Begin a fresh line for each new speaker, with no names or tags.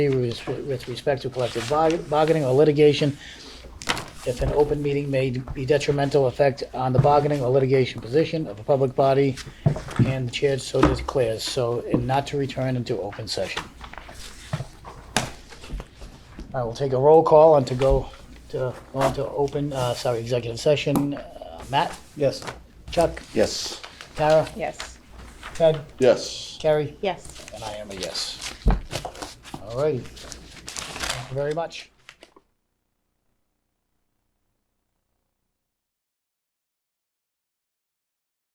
with with respect to collective barg- bargaining or litigation, if an open meeting may be detrimental effect on the bargaining or litigation position of a public body, and the chair so declares, so, and not to return into open session. I will take a roll call and to go to, on to open, uh, sorry, executive session. Uh, Matt,
Yes.
Chuck,
Yes.
Tara,
Yes.
Ted,
Yes.
Carrie,
Yes.
and I am a yes. All righty. Thank you very much.